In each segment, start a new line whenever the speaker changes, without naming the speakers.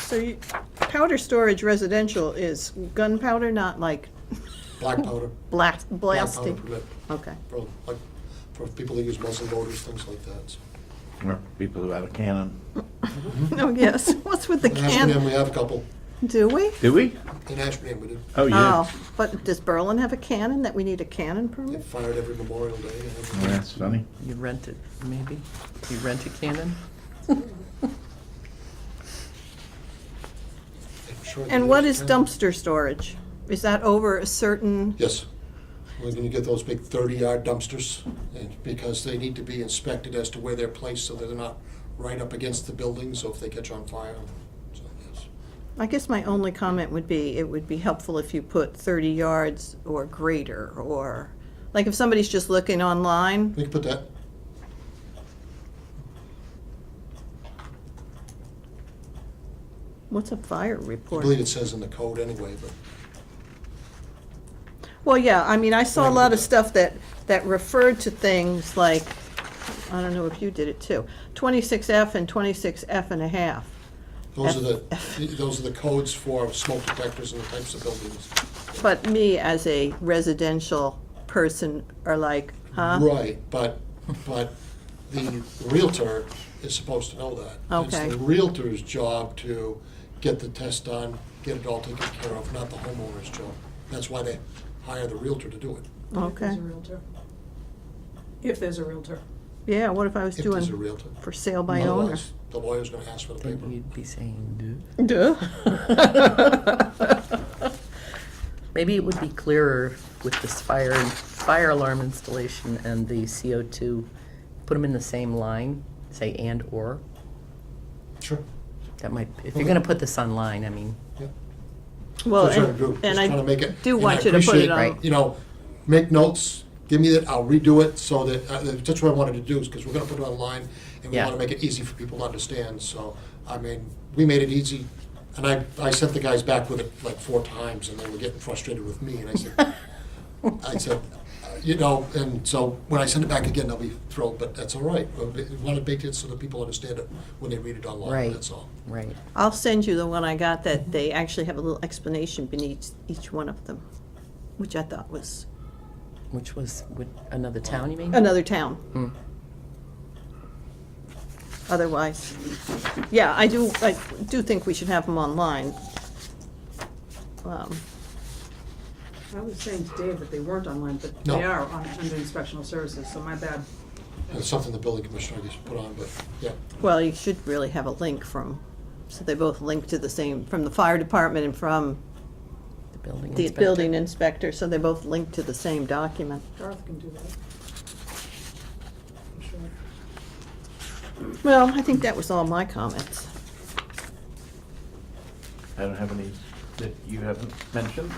So you- powder storage residential is gunpowder, not like
black powder.
blast,
black powder
blasting?
permit
Okay.
For, like, for people that use muscle motors, things like that, so.
Or people who have a cannon.
No, Oh, yes, what's with the
In Ashburnham,
can,
we have a couple.
do we?
Do we?
In Ashburnham, we did.
Oh, yeah.
Oh, but does Berlin have a cannon, that we need a cannon
They
permit?
fired every Memorial Day. and
Well,
everything.
That's funny.
You rent it, maybe? You rent a cannon?
I'm sure they
And what
did.
is dumpster storage? Is that over a certain,
Yes. We're gonna get those big thirty-yard dumpsters, and because they need to be inspected as to where they're placed, so that they're not right up against the building, so if they catch on fire, so, yes.
I guess my only comment would be, it would be helpful if you put thirty yards or greater, or, like if somebody's just looking online,
We can put that,
what's a fire
I
report?
believe it says in the code anyway, but.
Well, yeah, I mean, I saw a
Right.
lot of stuff that, that referred to things like, I don't know if you did it too, twenty-six F and twenty-six F and a half.
Those are
F-
the, those are the codes for smoke detectors and the types of buildings.
But me, as a residential person, are like, huh?
Right, but, but the Realtor is supposed to know that.
Okay.
It's the Realtor's job to get the test done, get it all taken care of, not the homeowner's job. That's why they hire the Realtor to do it,
If there's
Okay,
a Realtor. If there's a Realtor.
yeah, what if I was
if there's a
doing
Realtor.
for sale by owner?
Otherwise, the lawyer's gonna ask for the
Then
paper.
you'd be saying,
Duh.
duh. Maybe it would be clearer with this fire, fire alarm installation and the CO2, put them in the same line, say and/or.
Sure,
That might, if you're gonna put this online, I mean,
yeah.
Well,
That's what I'm
and-
trying to do,
and
just trying to make
I
it-
do
and I
want you to put
appreciate,
it on,
Right.
You know, make notes, give me that, I'll redo it, so that, uh, that's what I wanted to do, is because we're gonna put it online, and we
Yeah.
wanna make it easy for people to understand, so, I mean, we made it easy, and I, I sent the guys back with it like four times, and they were getting frustrated with me, and I said, I said, uh, you know, and so when I send it back again, they'll be thrilled, but that's all right, we wanna make it so that people understand it when they read it online,
Right.
that's all.
right.
I'll send you the one I got that they actually have a little explanation beneath each one of them, which I thought was
Which was, with another town, you mean? Hmm.
another town. Otherwise, yeah, I do, I do think we should have them online. Um,
I was saying to Dave that they weren't online, but they
No.
are on, under inspectional services, so my bad.
And it's something the building commissioner used to put on, but, yeah.
Well, you should really have a link from, so they both link to the same, from the fire department and from
The building
the
inspector.
building inspector, so they both link to the same document.
Garth can do that. I'm sure.
Well, I think that was all my comments.
I don't have any that you haven't mentioned.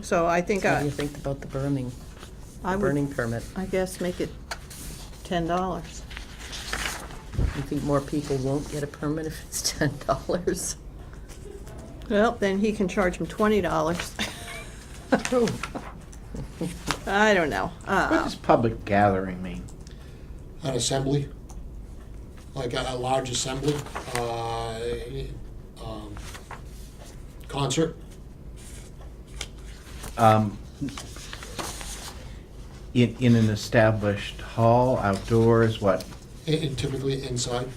So I think
What do
I,
you think about the burning,
I
the
would,
burning permit?
I guess make it ten dollars.
You think more people won't get a permit if it's ten dollars?
Well, then he can charge him twenty dollars. I don't know.
What
Uh,
does public gathering mean?
an assembly, like a, a large assembly, uh, um, concert.
Um, In, in an established hall, outdoors, what?
i- i- typically inside.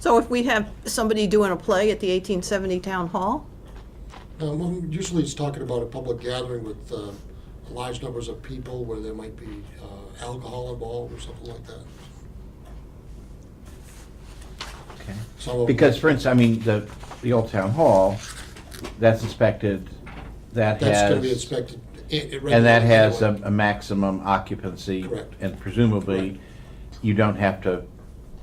So if we have somebody doing a play at the eighteen seventy town hall,
Um, well, usually it's talking about a public gathering with uh, large numbers of people where there might be uh, alcohol involved or something like that.
Okay.
Some of
Because, for instance, I mean, the, the old town hall, that's inspected, that has.
that's going to be inspected. i- i-
And that has a,
regularly
a maximum occupancy.
Correct.
And presumably, you don't have to
anyway.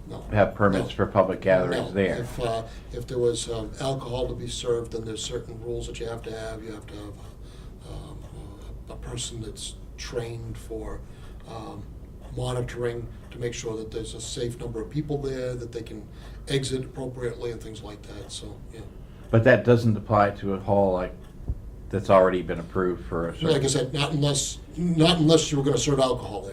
No.
have permits
No.
for public gatherings
No,
there.
If, uh, if there was um, alcohol to be served, then there's certain rules that you have to have. You have to have um, a person that's trained for um, monitoring to make sure that there's a safe number of people there, that they can exit appropriately and things like that, so, yeah.
But that doesn't apply to a hall like, that's already been approved for a certain.
Like I said, not unless, not unless you were gonna serve alcohol there.